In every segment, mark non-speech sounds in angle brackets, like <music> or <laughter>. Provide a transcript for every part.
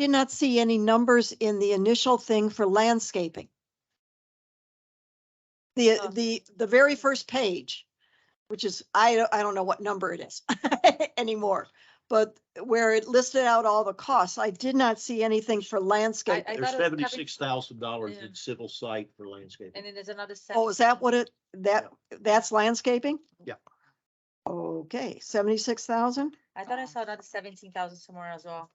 did not see any numbers in the initial thing for landscaping. The, Oh. the, the very first page, which is, I, don't- I don't know what number it is <laughs> anymore. But where it listed out all the costs, I did not see anything for I, landscape. I thought There's it was covered, seventy-six thousand dollars Yeah. in civil site for landscaping. and then there's another. Oh, is that what it, that, that's landscaping? Yeah. Okay, seventy-six thousand? I thought I saw another seventeen thousand somewhere as well.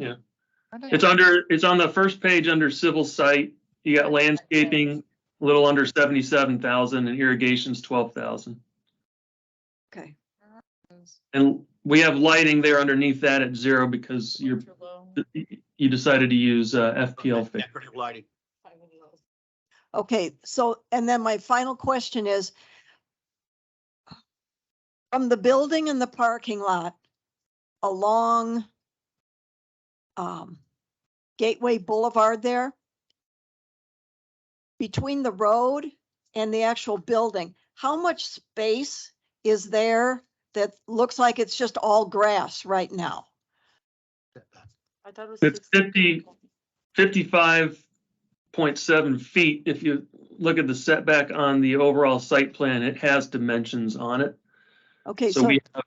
It's under, it's on the first page under civil site. You got landscaping, a little under seventy-seven thousand and irrigation's twelve thousand. Okay. And we have lighting there underneath that at zero because you're, Ultra low, you decided to use uh, FPL. fix. Decorative lighting. five really low. Okay, so, and then my final question is, from the building and the parking lot along um, Gateway Boulevard there, between the road and the actual building, how much space is there that looks like it's just all grass right now? I thought it was. It's 16. 50. Fifty-five point seven feet. If you look at the setback on the overall site plan, it has dimensions on it. Okay, So so, we, have-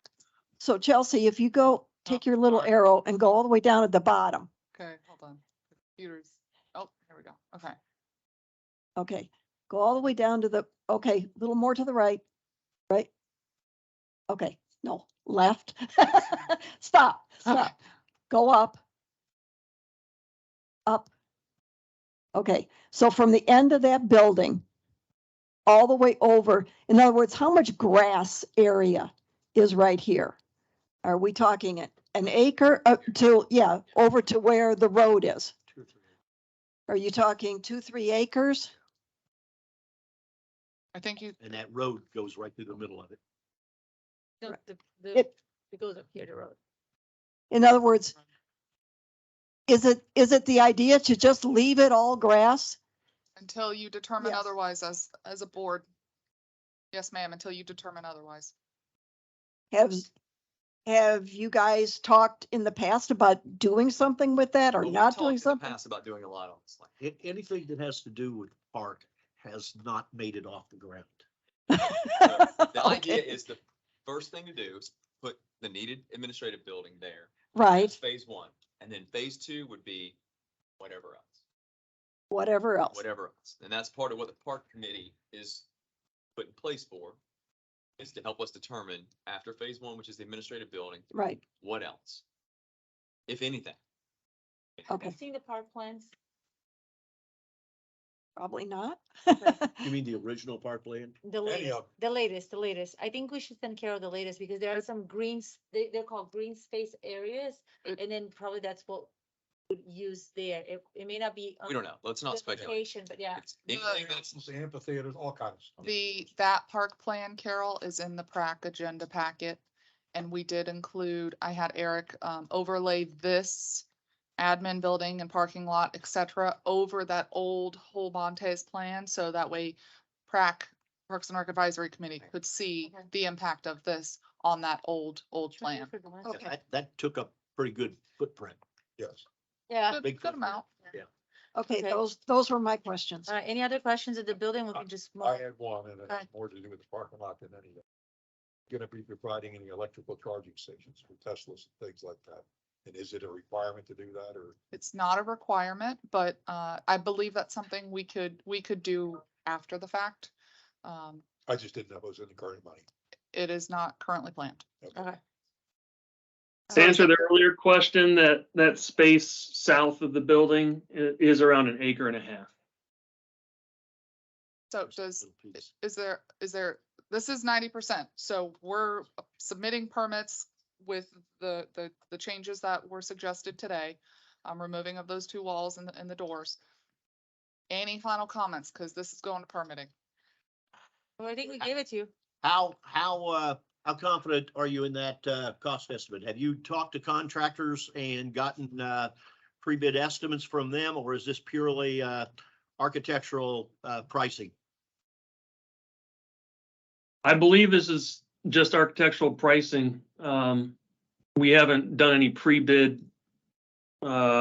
so Chelsea, if you Oh, go, take your little sorry. arrow and go all the way down at the bottom. Okay, hold on. Computers. Oh, here we go. Okay. Okay, go all the way down to the, okay, a little more to the right, right? Okay, no, left. <laughs> Stop, stop. Go up. Up. Okay, so from the end of that building, all the way over, in other words, how much grass area is right here? Are we talking it- an acre uh, to, yeah, over to where the road is? Two or three. Are you talking two, three acres? I think you, And that road goes right through the middle of it. No, Right. the- the- It- It goes up here, the road. In other words, is it, is it the idea to just leave it all grass? until you determine Yes. otherwise as, as a board. Yes, ma'am, until you determine otherwise. Have, have you guys talked in the past about doing something with that or Well, we've not talked in doing the something? Past about doing a lot on this, like, A- Anything that has to do with park has not made it off the ground. <laughs> the idea Okay, is the first thing to do is put the needed administrative building there. That's Right, Phase one, and then phase two would be whatever else, whatever else. whatever else, and that's part of what the park committee is put in place for. Is to help us determine after phase one, which is the administrative building, Right, what else? If anything, Have you okay, seen the park plans? probably not. <laughs> You mean the original park land? The latest, the latest, the latest. I think we should take care of the latest because there are some greens, they, they're called green space areas. It- And then probably that's what would use there. It, it may not be. we don't know, let's not speculate. Location, but yeah. It's anything that's amphitheaters, all kinds of stuff. The, that park plan, Carol, is in the PrAC agenda packet. And we did include, I had Eric um, overlay this admin building and parking lot, et cetera, over that old whole Montes plan. So that way PrAC, Parks and Rec Advisory Committee, could see Okay. the impact of this on that old, old Trying to plan. figure out. Okay. That, that took up pretty good footprint. Yes. Yeah. Good Big good amount. Okay, Okay. those, those were my questions. All right, any other questions at the building? We can just. move I on. had one, and it Go had ahead. more to do with the parking lot than any of it. Gonna be providing any electrical charging stations for Teslas and things like that. And is it a requirement to do that, or? It's not a requirement, but uh, I believe that's something we could, we could do after the fact. Um, I just didn't know if it was in the current money. It is not currently planned. Okay. to answer the earlier question, that, that space south of the building i- is around an acre and a half. Oh, So does, is there, is there, this is ninety percent, so we're submitting permits with the, the, the changes that were suggested today. Um, removing of those two walls and the, and the doors. Any final comments, because this is going to permitting. Well, I think we gave it to you. How, how, uh, how confident are you in that, uh, cost estimate? Have you talked to contractors and gotten, uh, pre-bid estimates from them, or is this purely, uh, architectural, uh, pricing? I believe this is just architectural pricing. Um, we haven't done any pre-bid uh,